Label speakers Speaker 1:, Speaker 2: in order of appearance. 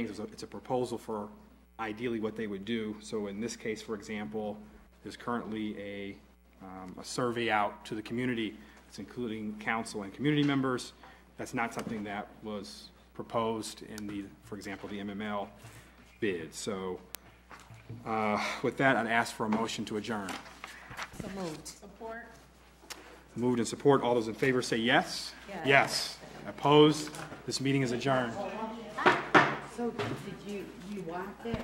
Speaker 1: It's a- It's a proposal for ideally what they would do. So in this case, for example, there's currently a, um, a survey out to the community. It's including council and community members. That's not something that was proposed in the, for example, the MML bid. So uh, with that, I'd ask for a motion to adjourn.
Speaker 2: So moved. Support?
Speaker 1: Moved and support. All those in favor say yes?
Speaker 2: Yes.
Speaker 1: Yes. Opposed? This meeting is adjourned.
Speaker 2: So did you, you wipe that?